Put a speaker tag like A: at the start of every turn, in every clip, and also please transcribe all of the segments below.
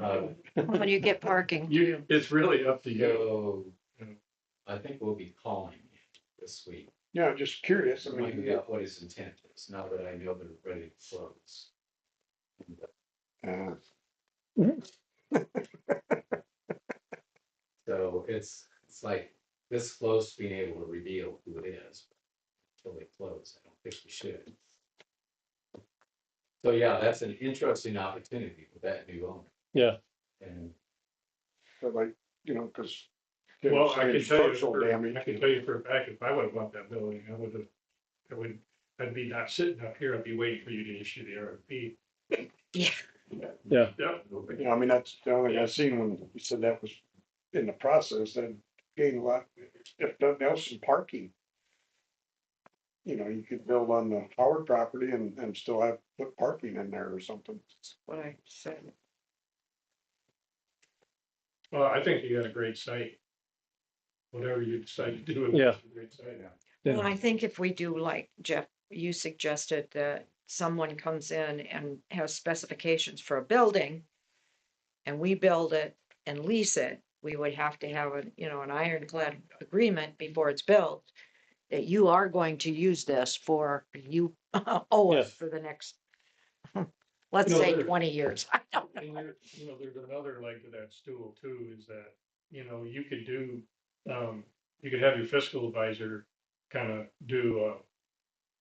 A: Uh,
B: when you get parking.
A: you, it's really up to you.
C: So, I think we'll be calling this week.
D: Yeah, just curious. I
C: Find
D: mean,
C: out what his intent is, now that I know they're ready to close.
D: uh,
C: So it's, it's like this close to being able to reveal who it is. Until they close, I don't think we should. So yeah, that's an interesting opportunity with that new owner.
A: Yeah.
C: And
D: but like, you know, because.
A: Well, I can tell you,
D: Structural
A: for-
D: damage.
A: I can tell you for a fact, if I would have bought that building, I would have, I would, I'd be not sitting up here, I'd be waiting for you to issue the RFP.
B: Yeah.
A: Yeah.
D: You know, I mean, that's the only thing I seen when you said that was in the process, that gained a lot, if nothing else, in parking. You know, you could build on the Howard property and, and still have, put parking in there or something.
B: What I said.
A: Well, I think you got a great site. Whatever you decide to do. it's
E: Yeah.
A: a Great site.
E: Yeah.
B: Well, I think if we do like Jeff, you suggested that someone comes in and has specifications for a building. And we build it and lease it, we would have to have a, you know, an ironclad agreement before it's built. That you are going to use this for, you owe us
E: Yes.
B: for the next. Let's
A: No,
B: say
A: there-
B: twenty years, I don't know.
A: And there, you know, there's another leg to that stool too, is that, you know, you could do, um, you could have your fiscal advisor kind of do a,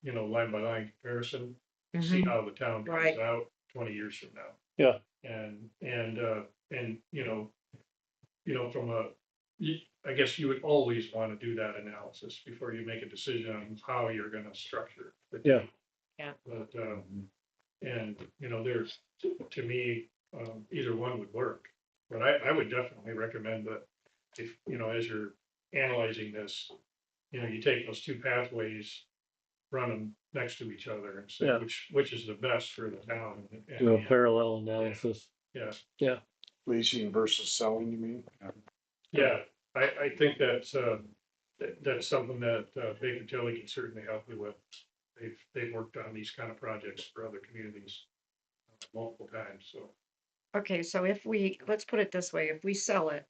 A: you know, line by line comparison, see
B: Mhm.
A: how the town comes
B: Right.
A: out twenty years from now.
E: Yeah.
A: And, and, uh, and, you know, you know, from a, you- I guess you would always want to do that analysis before you make a decision on how you're gonna structure. the
E: Yeah.
A: deal.
B: Yeah.
A: But, um, and, you know, there's, to me, um, either one would work. But I, I would definitely recommend that if, you know, as you're analyzing this, you know, you take those two pathways, run them next to each other and say
E: Yeah.
A: which, which is the best for the town. and- and-
E: Do a parallel analysis.
A: Yeah,
D: Leasing versus selling, you mean?
A: yeah, I, I think that's, uh, that, that's something that, uh, Baker Tilly can certainly help you with. They've, they've worked on these kind of projects for other communities multiple times, so.
B: Okay, so if we, let's put it this way, if we sell it,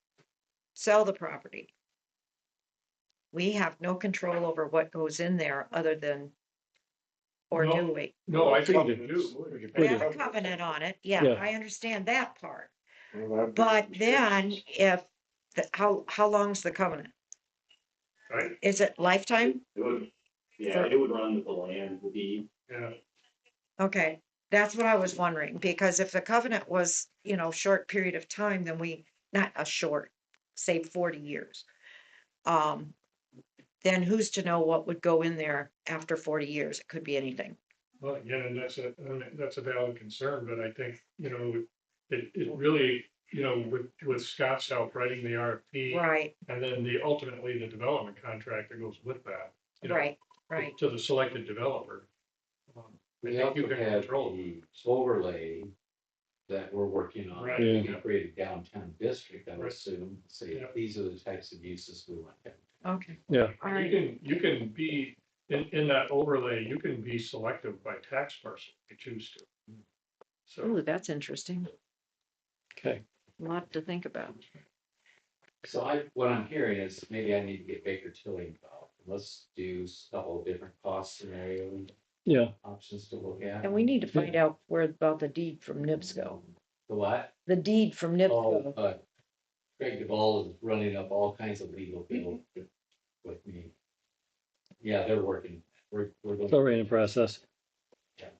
B: sell the property. We have no control over what goes in there other than. Or
A: No,
B: do we?
A: No, I think you
D: Covenants.
A: do.
D: We could
B: We
D: put
B: have a
D: covenants.
B: covenant on it,
E: Yeah.
B: yeah, I understand that part,
D: Well, that'd be-
B: but then if, the- how, how long's the covenant?
A: Right,
B: Is it lifetime?
F: It would, yeah, it would run with the land, the deed.
A: yeah.
B: Okay, that's what I was wondering, because if the covenant was, you know, short period of time, then we, not a short, say forty years. Um, then who's to know what would go in there after forty years? It could be anything.
A: Well, again, and that's a, I mean, that's a valid concern, but I think, you know, it, it really, you know, with, with Scott's help writing the RFP.
B: Right,
A: And then the, ultimately the development contract that goes with that. you know,
B: right, right.
A: To the selected developer. Um, I
C: we
A: think
C: also
A: you can
C: had
A: control.
C: the overlay that we're working on.
A: Right.
E: Yeah.
C: The upgraded downtown district, I would
A: Right.
C: assume, say,
A: Yeah.
C: these are the types of uses we want.
B: Okay, all
A: You
B: right.
A: can, you can be, in, in that overlay, you can be selective by tax parcel if you choose to. So,
B: Ooh, that's interesting.
E: Okay.
B: Lot to think about.
C: So I, what I'm hearing is maybe I need to get Baker Tilly involved. Let's do a couple of different cost scenario
E: Yeah,
C: options to look at.
B: And we need to find out where about the deed from NIPSCO,
C: The what?
B: the deed from
C: Oh,
B: NIPSCO.
C: uh, Craig DeVall is running up all kinds of legal bills with me. Yeah, they're working. We're, we're.
E: it's
C: going-
E: already in process.
B: Okay.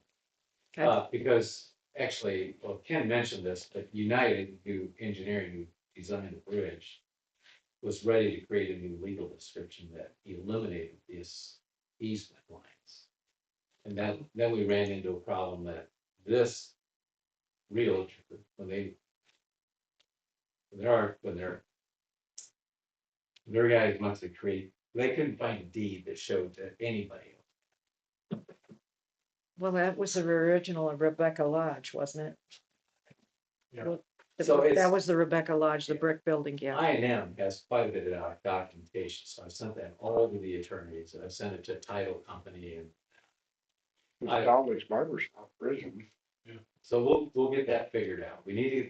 C: Uh, because actually, well, Ken mentioned this, but United, who engineering, who designed the bridge, was ready to create a new legal description that eliminated this easement lines. And that, then we ran into a problem that this realtor, when they when there are, when they're their guys must have created, they couldn't find a deed that showed to anybody.
B: Well, that was the original of Rebecca Lodge, wasn't it?
A: Yeah.
B: Well, the
C: So
B: brick- That
C: it's-
B: was the Rebecca Lodge, the
C: Yeah.
B: brick building, yeah.
C: I and M has quite a bit of doc- documentation, so I've sent that all over the attorneys, and I've sent it to title company, and
D: Dolly's Barber Shop, prison.
C: so we'll, we'll get that figured out. We need to